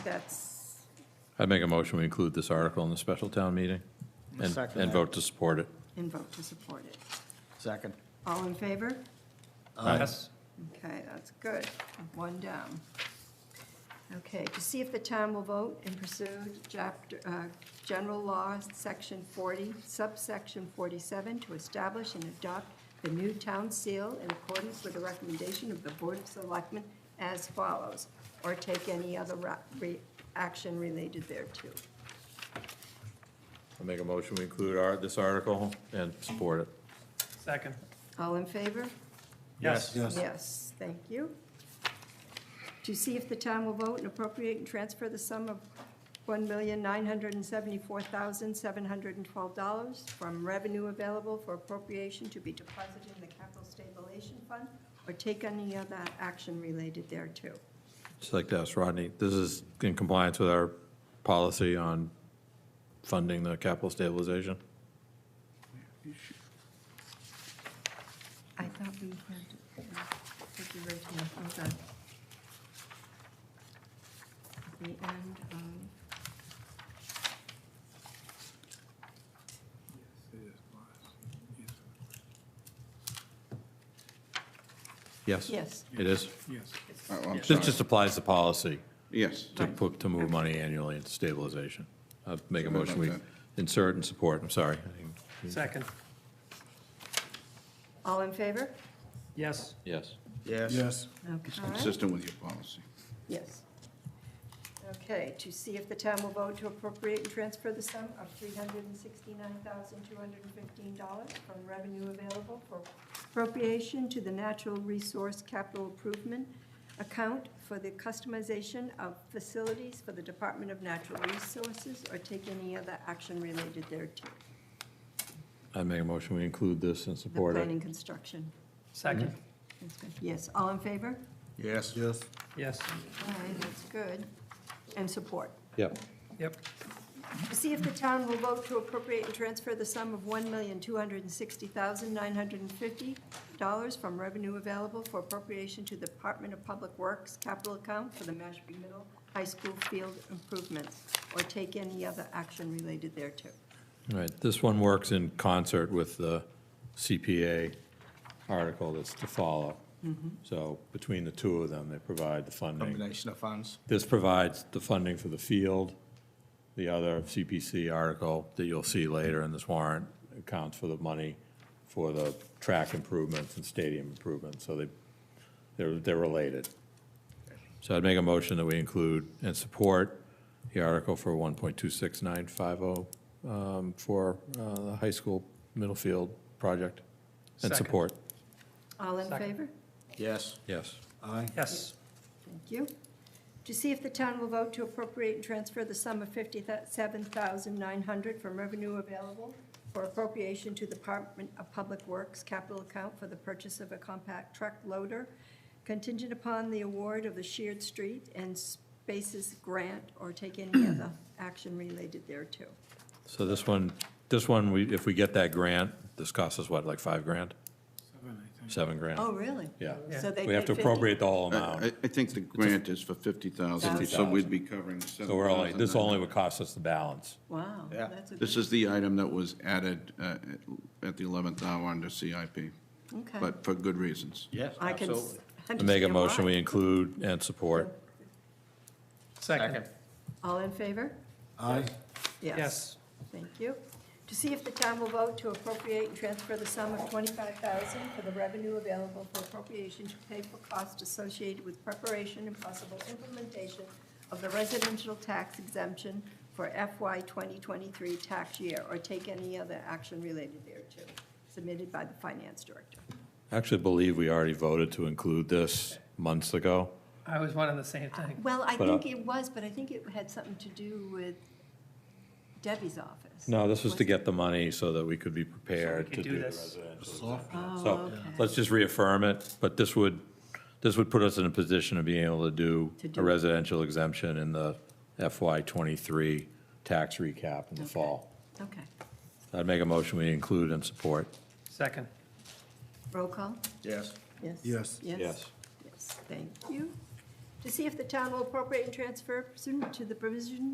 That's, I'd make a motion, we include this article in the special town meeting and, Second and that. vote to support it. and vote to support it. Second. All in favor? Yes. Okay, that's good. One down. Okay, to see if the town will vote and pursue chapter, uh, general law, section 40, subsection 47, to establish and adopt the new town seal in accordance with the recommendation of the Board of Selectmen as follows, or take any other ra- re- action related thereto. I'll make a motion, we include our, this article and support it. Second. All in favor? Yes. Yes, thank you. To see if the town will vote and appropriate and transfer the sum of $1,974,712 from revenue available for appropriation to be deposited in the capital stabilization fund or take any other action related thereto. Just like to ask Rodney, this is in compliance with our policy on funding the capital stabilization? I thought we had, uh, took the original, hold on. At The end of, Yes? yes. It is? Yes. Oh, I'm This sorry. just applies the policy Yes, to Right. put, to move money annually into stabilization. I'll make a Sorry motion, we about insert and support, I'm sorry. I didn't- Second. All in favor? Yes. Yes. Yes. Yes. it's Okay. consistent with your policy. Yes. Okay, to see if the town will vote to appropriate and transfer the sum of $369,215 from revenue available for appropriation to the Natural Resource Capital Improvement Account for the customization of facilities for the Department of Natural Resources or take any other action related thereto. I make a motion, we include this and The support it. planning construction. Second. That's good. Yes, all in favor? Yes. Yes. Yes. All right, that's good. And support. Yep. Yep. To see if the town will vote to appropriate and transfer the sum of $1,260,950 from revenue available for appropriation to the Department of Public Works capital account for the Mashpee Middle High School field improvements, or take any other action related thereto. All right, this one works in concert with the CPA article that's to follow. So between the two of them, they provide the funding. Combination of funds. This provides the funding for the field. The other CPC article that you'll see later in this warrant accounts for the money for the track improvements and stadium improvements, so they, they're, they're related. So I'd make a motion that we include and support the article for 1.26950 um, for uh, the high school middle field project. And Second. support, All in Second. favor? Yes. yes. Aye. Yes. Thank you. To see if the town will vote to appropriate and transfer the sum of $57,900 from revenue available for appropriation to the Department of Public Works capital account for the purchase of a compact truck loader contingent upon the award of the Sheard Street and Spaces Grant or take any other action related thereto. So this one, this one, we, if we get that grant, this costs us what, like five grand? Seven grand? Oh, really? Yeah. So they We have to paid 50 appropriate the whole I- I, amount. I think the grant is for fifty thousand, so 50,000. we'd be covering the seven So we're only, this only would cost us the balance. Wow. Yeah. that's a This good- is the item that was added, uh, at- at the eleventh hour under CIP, Okay. but for good reasons. Yes, I can s- absolutely. I Make a understand why. motion, we include and support. Second. All in favor? Aye. Yes. Thank you. To see if the town will vote to appropriate and transfer the sum of twenty-five thousand for the revenue available for appropriation to pay for costs associated with preparation and possible implementation of the residential tax exemption for FY twenty twenty-three tax year, or take any other action related thereto, submitted by the finance director. I actually believe we already voted to include this months ago. I was wondering the same thing. Well, I But, uh, think it was, but I think it had something to do with Debbie's office. No, this was to get the money so that we could be prepared to could do do the this. residential. Oh, So okay. let's just reaffirm it, but this would, this would put us in a position of being able to do To do a it. residential exemption in the FY '23 tax recap in the Okay. fall. Okay. I'd make a motion, we include and support. Second. Roll call? Yes. Yes. Yes. Yes. Yes, thank you. to see if the town will appropriate and transfer pursuant to the provision